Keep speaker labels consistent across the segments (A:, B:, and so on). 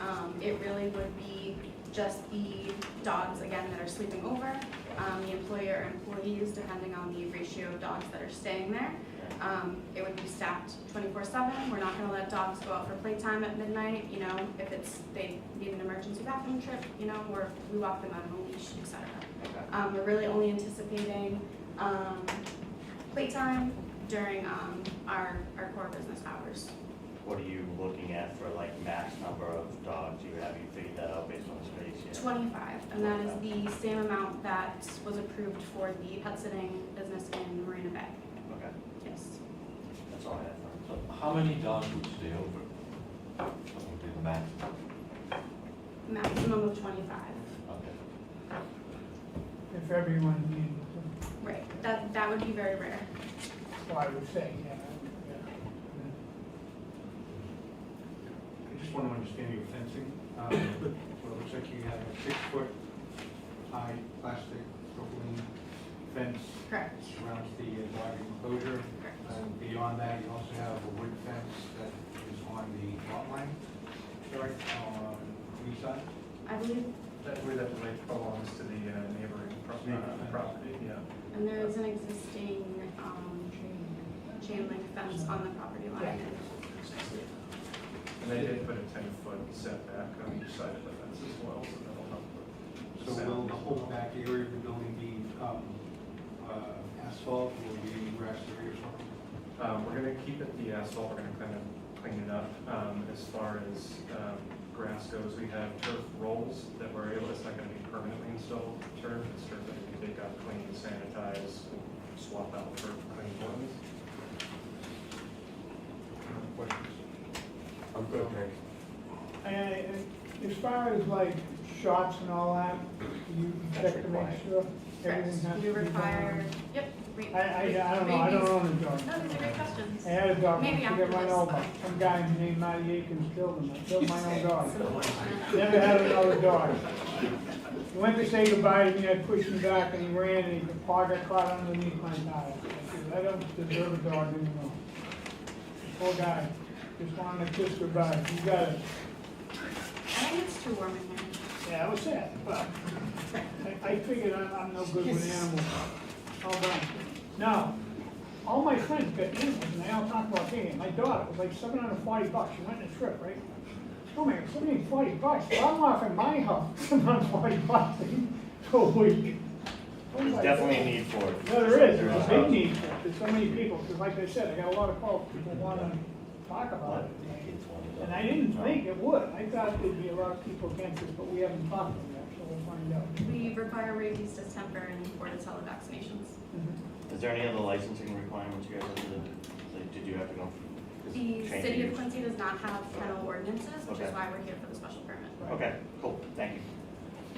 A: Um, it really would be just the dogs, again, that are sleeping over, um, the employer or employees, depending on the ratio of dogs that are staying there. Um, it would be staffed twenty-four seven, we're not gonna let dogs go out for playtime at midnight, you know, if it's, they need an emergency bathroom trip, you know, or we walk them out on a leash, et cetera. Um, we're really only anticipating, um, playtime during, um, our, our core business hours.
B: What are you looking at for like max number of dogs you have? You figured that out based on space yet?
A: Twenty-five, and that is the same amount that was approved for the pet sitting business in Marina Bay,
B: Okay,
A: yes.
B: that's all I have. for
C: So how many dogs would stay over? That would be the max.
A: Maximum of twenty-five.
C: Okay.
D: if everyone needed
A: Right, that, that would be very rare.
D: them, so I would say, yeah.
E: I just want to understand your fencing. Um, Well, it looks like you have a six-foot high plastic propylene fence
A: Correct,
E: surrounds the uh, dog enclosure.
A: correct.
E: And beyond that, you also have a wood fence that is on the lot line, correct, on the east side?
A: I believe,
F: That, where that lake belongs to the uh, neighboring pro- uh, property, yeah.
A: and there is an existing, um, chain link fence on the property line.
F: And they did put a ten-foot setback on each side of the fence as well, so that'll help. with
E: So
F: sound.
E: will the whole back area of the building be um, uh, asphalt, will it be any grass area or something?
F: Um, we're gonna keep it the asphalt, we're gonna kind of clean it up, um, as far as, um, grass goes, we have turf rolls that we're able, it's not gonna be permanently installed turf, it's turf that we can take out, clean, sanitize, swap out for clean ones.
E: Questions?
C: I'm good, thanks.
D: And and as far as like shots and all that, you
B: That's
D: check to
B: required.
D: make sure
A: Correct,
D: everything has to be
A: we
D: done?
A: require, yep. re-
D: I, I, I don't know, I don't own a dog.
A: No, these are great questions.
D: I had a dog, once,
A: Maybe
D: he got
A: after
D: run
A: this.
D: over, some guy named Matty Akins killed him, I killed my own dog.
A: So-
D: Never had another dog. He Went to say goodbye to me, I pushed him back and he ran and the paw got caught underneath my tire. I said, I don't deserve a dog anymore. Poor guy, just wanted to kiss goodbye, you got it.
A: I think it's too warm in here.
D: Yeah, I was sad, but I, I figured I'm, I'm no good with animals. All done. Now, all my friends got animals, and they all talk about taking it. My daughter, it was like seven hundred and forty bucks, she went on a trip, right? Oh man, seven hundred and forty bucks, well, I'm offering my house, seven hundred and forty bucks a
B: that.
D: week.
B: There's definitely a need for it.
D: No, there is, there's a big need, for it. there's so many people, because like I said, I got a lot of calls, people wanna talk about it. And I didn't think it would, I thought there'd be a lot of people against it, but we haven't talked to them yet, so we'll find out.
A: We require rabies, distemper, and bordetella vaccinations.
B: Is there any other licensing requirements you guys have to, do? like, did you have to go?
A: The
B: change
A: city of
B: use?
A: Quincy does not have kennel ordinances, which is
B: Okay.
A: why we're here for the special permit.
B: Okay, cool, thank you.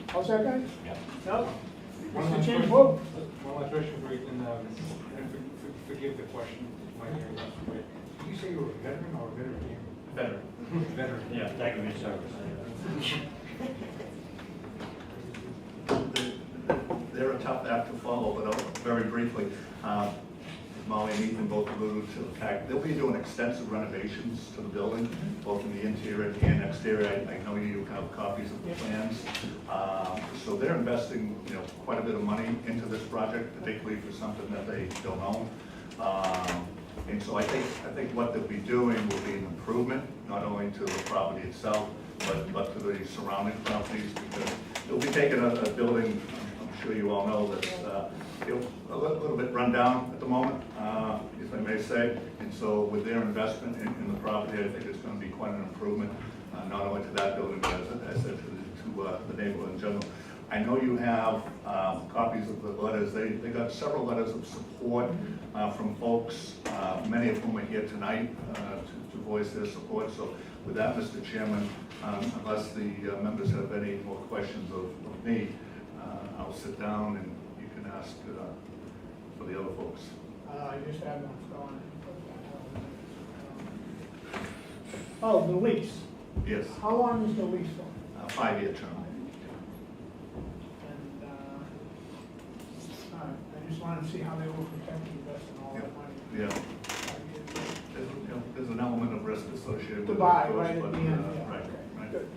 D: How's that, guys?
C: Yeah.
D: No?
E: One last
D: Mr. Chairman,
E: question.
D: whoa.
E: One last question for you, and, um, and for- for- forgive the question, my hearing loss, but did you say you were a veteran or a veteran?
F: Better,
E: Veteran.
F: yeah.
B: Thank you for your service.
G: They're a tough act to follow, but I'll- very briefly, uh, Molly and Ethan both alluded to the fact, they'll be doing extensive renovations to the building, both in the interior and exterior. I- I know you have copies of the plans. Uh, So they're investing, you know, quite a bit of money into this project, particularly for something that they don't own. Um, And so I think, I think what they'll be doing will be an improvement, not only to the property itself, but, but to the surrounding properties, because they'll be taking a, a building, I'm sure you all know, that's, uh, you know, a little, little bit rundown at the moment, uh, if I may say. And so with their investment in, in the property, I think it's gonna be quite an improvement, uh, not only to that building, but as, I- as I said, to, the- to, uh, the neighborhood in general. I know you have, um, copies of the letters, they, they got several letters of support, uh, from folks, uh, many of whom are here tonight, uh, to, to voice their support. So with that, Mr. Chairman, um, unless the uh, members have any more questions of, of me, uh, I'll sit down and you can ask, uh, for the other folks.
D: Uh, I just had one going. Oh, the lease.
G: Yes,
D: How long is the lease for?
G: a five-year term.
D: And, uh, all right, I just wanted to see how they will protect the investment, all that
G: Yep.
D: money.
G: Yeah, there's, you know, there's an element of risk associated with it.
D: To
G: of
D: buy
G: course,
D: right at
G: but,
D: the end,
G: uh,
D: yeah.
G: Right,
D: Okay,
G: right.
D: Good.